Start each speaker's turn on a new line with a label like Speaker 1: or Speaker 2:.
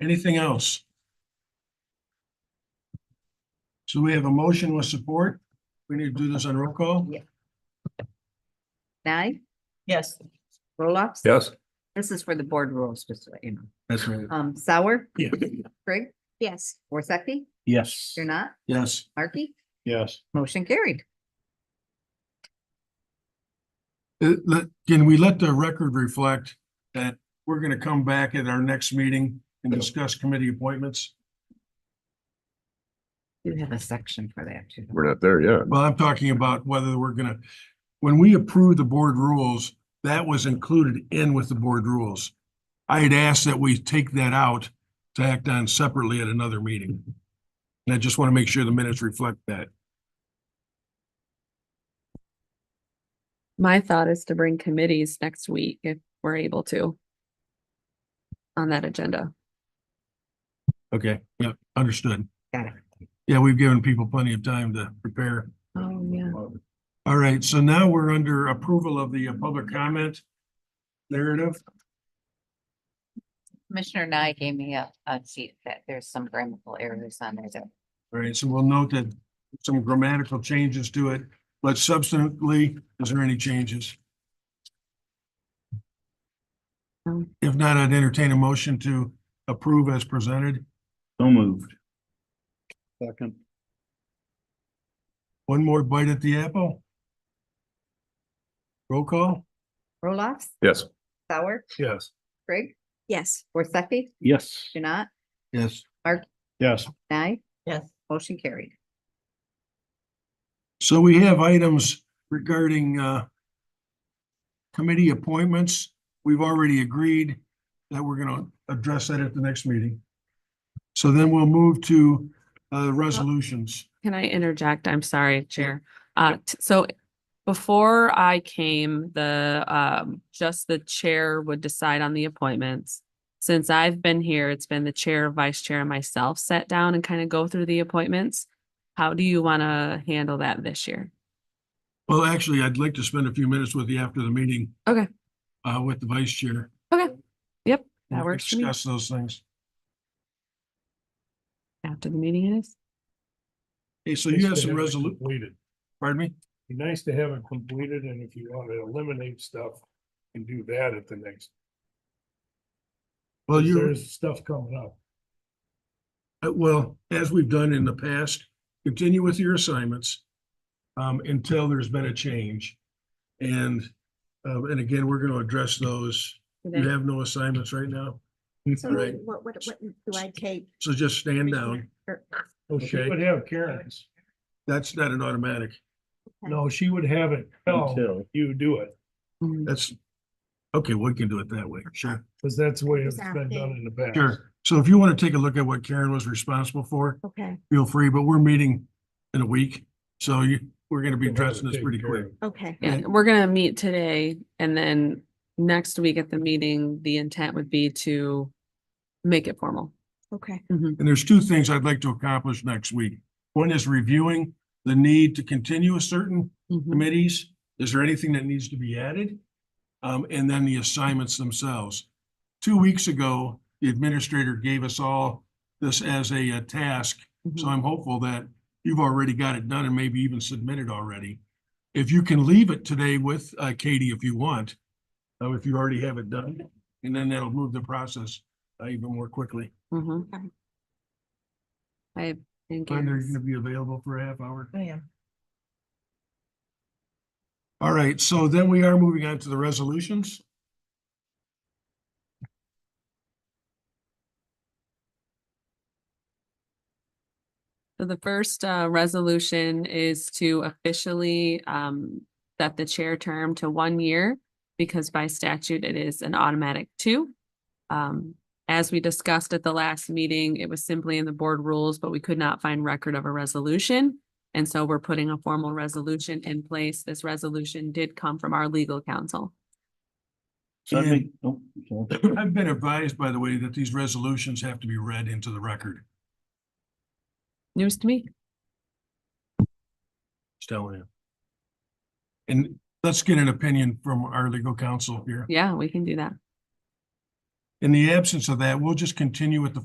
Speaker 1: Anything else? So we have a motion with support. We need to do this on roll call.
Speaker 2: Yeah. Nye,
Speaker 3: Yes.
Speaker 2: Roloffs.
Speaker 4: Yes.
Speaker 2: This is for the board rules, just so you know.
Speaker 4: That's right.
Speaker 2: Um, Sour,
Speaker 1: Yeah.
Speaker 2: Craig,
Speaker 3: Yes.
Speaker 2: Worsakki,
Speaker 4: Yes.
Speaker 2: you're not,
Speaker 1: Yes.
Speaker 2: Markey,
Speaker 4: Yes.
Speaker 2: motion carried.
Speaker 1: Uh, let- can we let the record reflect that we're gonna come back at our next meeting and discuss committee appointments?
Speaker 2: You have a section for that too.
Speaker 4: We're not there yet.
Speaker 1: Well, I'm talking about whether we're gonna, when we approve the board rules, that was included in with the board rules. I had asked that we take that out to act on separately at another meeting. And I just want to make sure the minutes reflect that.
Speaker 5: My thought is to bring committees next week if we're able to. On that agenda.
Speaker 1: Okay. Yeah, understood.
Speaker 2: Got it.
Speaker 1: Yeah, we've given people plenty of time to prepare.
Speaker 5: Oh, yeah.
Speaker 1: All right, so now we're under approval of the uh, public comment narrative.
Speaker 2: Commissioner Nye gave me a, a sheet that there's some grammatical errors on there that
Speaker 1: All right, so we'll note that some grammatical changes to it, but substantively, is there any changes?
Speaker 5: No.
Speaker 1: If not, I'd entertain a motion to approve as presented.
Speaker 4: So moved. Second.
Speaker 1: One more bite at the apple. Roll call?
Speaker 2: Roloffs,
Speaker 4: Yes.
Speaker 2: Sour,
Speaker 1: Yes.
Speaker 2: Craig,
Speaker 3: Yes.
Speaker 2: Worsakki,
Speaker 4: Yes.
Speaker 2: you're not,
Speaker 1: Yes.
Speaker 4: Yes.
Speaker 2: Nye,
Speaker 3: Yes.
Speaker 2: motion carried.
Speaker 1: So we have items regarding uh committee appointments. We've already agreed that we're gonna address that at the next meeting. So then we'll move to uh resolutions.
Speaker 5: Can I interject? I'm sorry, Chair. Uh, t- so before I came, the, um, just the chair would decide on the appointments. Since I've been here, it's been the chair, vice chair, and myself sat down and kind of go through the appointments. How do you want to handle that this year?
Speaker 1: Well, actually, I'd like to spend a few minutes with you after the meeting.
Speaker 5: Okay.
Speaker 1: Uh, with the vice chair.
Speaker 5: Okay. Yep, that
Speaker 1: We'll
Speaker 5: works for me.
Speaker 1: Discuss those things.
Speaker 5: After the meeting it is?
Speaker 1: Hey, so you have some resolu-
Speaker 6: Completed.
Speaker 1: pardon me?
Speaker 6: Be nice to have it completed and if you want to eliminate stuff and do that at the next,
Speaker 1: Well, you,
Speaker 6: there's stuff coming up.
Speaker 1: uh, well, as we've done in the past, continue with your assignments. Um, until there's been a change. And, uh, and again, we're gonna address those. You have no assignments right now,
Speaker 7: So
Speaker 1: Right.
Speaker 7: what, what, what do I take?
Speaker 1: so just stand down.
Speaker 7: Or-
Speaker 6: She
Speaker 1: Okay,
Speaker 6: would have Karen's.
Speaker 1: that's not an automatic.
Speaker 6: No, she would have it. No,
Speaker 4: Until.
Speaker 6: you do it.
Speaker 5: Mm.
Speaker 1: That's, okay, we can do it that way. Sure.
Speaker 6: Because that's the way it's been done in the past.
Speaker 1: Sure. So if you want to take a look at what Karen was responsible for,
Speaker 7: Okay,
Speaker 1: feel free, but we're meeting in a week. So you, we're going to be
Speaker 6: We'll have it
Speaker 1: addressing this
Speaker 6: taken
Speaker 1: pretty
Speaker 6: care
Speaker 1: quick.
Speaker 6: of.
Speaker 7: okay.
Speaker 5: Yeah, we're gonna meet today and then next week at the meeting, the intent would be to make it formal.
Speaker 7: Okay.
Speaker 1: And there's two things I'd like to accomplish next week. One is reviewing the need to continue a certain committees. Is there anything that needs to be added? Um, and then the assignments themselves. Two weeks ago, the administrator gave us all this as a uh, task
Speaker 5: Mm-hmm.
Speaker 1: So I'm hopeful that you've already got it done and maybe even submitted already. If you can leave it today with uh, Katie, if you want, uh, if you already have it done, and then that'll move the process uh, even more quickly.
Speaker 5: Mhm. I think.
Speaker 1: Glenda, are you
Speaker 5: it's-
Speaker 1: gonna be available for a half hour?
Speaker 3: I am.
Speaker 1: All right, so then we are moving on to the resolutions.
Speaker 5: So the first uh resolution is to officially um set the chair term to one year because by statute it is an automatic two. Um, as we discussed at the last meeting, it was simply in the board rules, but we could not find record of a resolution. And so we're putting a formal resolution in place. This resolution did come from our legal counsel.
Speaker 4: So I think- oh, okay.
Speaker 1: I've been advised, by the way, that these resolutions have to be read into the record.
Speaker 5: News to me.
Speaker 1: Just telling you. And let's get an opinion from our legal counsel here.
Speaker 5: Yeah, we can do that.
Speaker 1: In the absence of that, we'll just continue with the